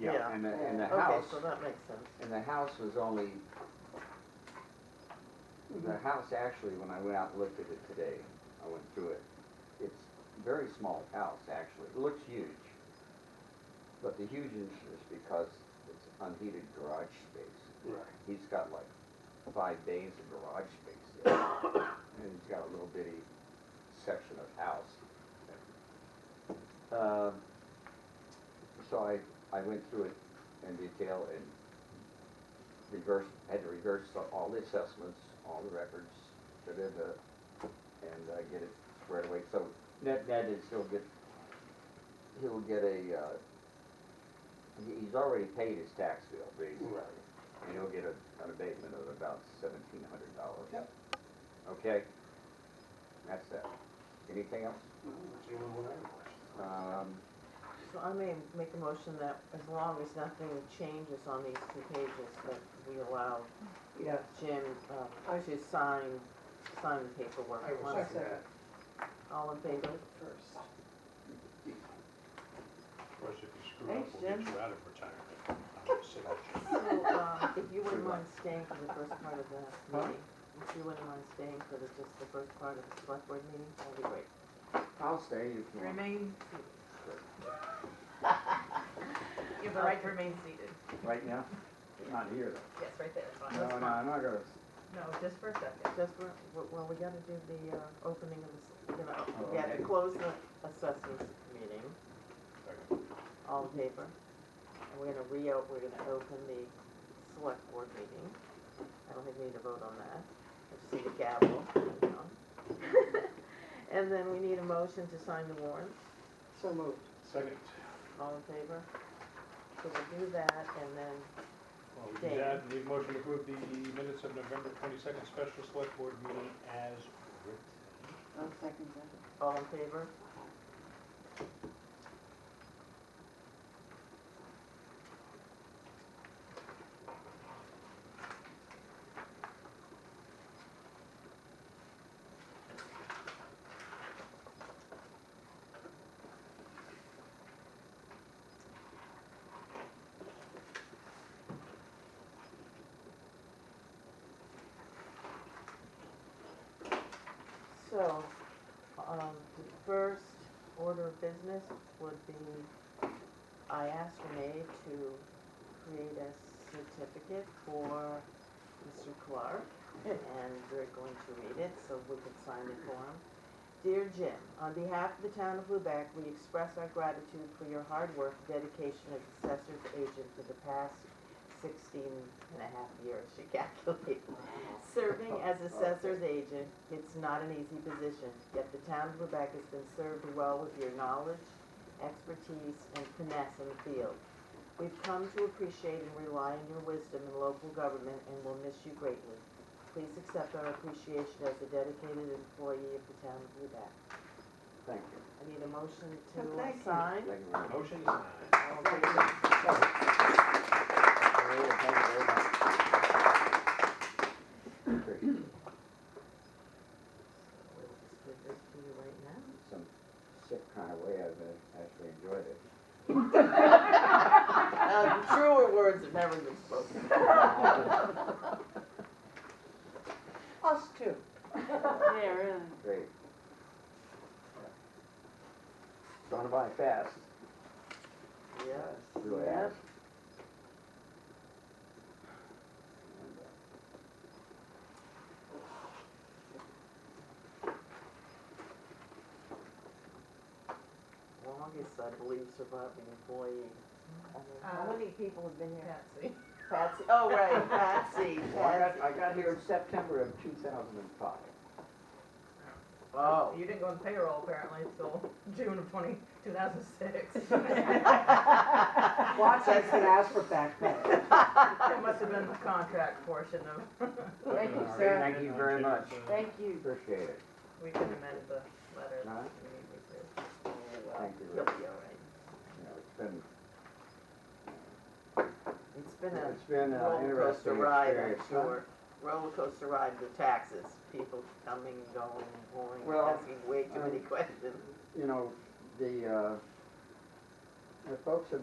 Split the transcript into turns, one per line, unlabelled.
yeah, and the, and the
Okay,
house,
so that makes sense.
and the house was only, the house actually, when I went out and looked at it today, I went through it, it's a very small house, actually, it looks huge. But the huge is is because it's unheated garage space.
Right.
He's got like five days of garage space there. And he's got a little bitty section of house. Um, So I, I went through it in detail and reversed, had to reverse all the assessments, all the records, da-da-da, and uh, get it squared away. So net, net is he'll get, he'll get a, uh, he- he's already paid his tax bill, basically.
Right.
And he'll get a, an abatement of about seventeen hundred dollars.
Yep.
Okay? That's that. Anything else?
Does anyone want to have a question?
Um,
So I may make a motion that as long as nothing changes on these two pages, that we allow
Yes.
Jim um, to sign, sign the paperwork.
I will
once-
second that.
All in favor?
First.
Of course, if you screw up,
Thanks,
we'll get
Jim.
you out of retirement. I'm just saying.
So, um, if you wouldn't mind staying for the first part of the meeting, if you wouldn't mind staying for the, just the first part of the select board meeting, that'd be great.
I'll stay if you want.
Remain, you have
the right to
remain seated.
Right now? Not here
Yes, right there.
though. No, no, I'm not gonna,
No, just for a second.
Just, for- well, we gotta do the uh, opening of the, s- you know, we gotta
okay.
close the assessors meeting,
Second.
all in favor. And we're gonna reo, we're gonna open the select board meeting. I don't think we need to vote on that. I just need a gavel, you know. And then we need a motion to sign the warrants.
So moved.
Second.
All in favor? So we'll do that and then,
Well, we do that, need a motion to approve the minutes of November twenty-second special select board meeting as written.
I'll second that.
all in favor? So, um, the first order of business would be, I asked Renee to create a certificate for Mr. Clark, and we're going to read it, so we can sign it for him. Dear Jim, on behalf of the town of Lubec, we express our gratitude for your hard work, dedication as assessor's agent for the past sixteen and a half years, she calculated. Serving as assessor's agent, it's not an easy position, yet the town of Lubec has been served well with your knowledge, expertise, and finesse in the field. We've come to appreciate and rely on your wisdom in local government and will miss you greatly. Please accept our appreciation as a dedicated employee of the town of Lubec.
thank you.
I need a motion
Oh,
to
thank you.
uh, sign.
Thank you very much.
Motion is signed.
All in favor?
Thank you very much.
We'll just give this to you right now.
Some sick kind of way, I've uh, actually enjoyed it.
Uh, Truer words have never been spoken.
Us too.
Yeah, really.
Great. Gone by fast.
Yes.
Really has.
Longest, I believe, surviving employee. I mean,
Uh,
How many people have been here?
Patsy.
Patsy, oh, right, Patsy,
uh, Well, I
Patsy.
got, I got here in September of two thousand and five.
Oh.
You didn't go on payroll apparently until June of 20 2006.
Watch, I can ask for back pay.
It must have been the contract portion of,
Thank you,
Second.
sir.
Thank you very much.
Thank you.
Appreciate it.
we can amend the letter. if
Alright.
we need to.
Thank you.
You'll be all right.
You know, it's been,
It's been a
it's been an
roller coaster
interesting
ride, I'm
experience. huh?
sure. Roller coaster ride with taxes, people coming, going, and going,
Well,
asking way too many
um,
questions.
You know, the, uh, the folks have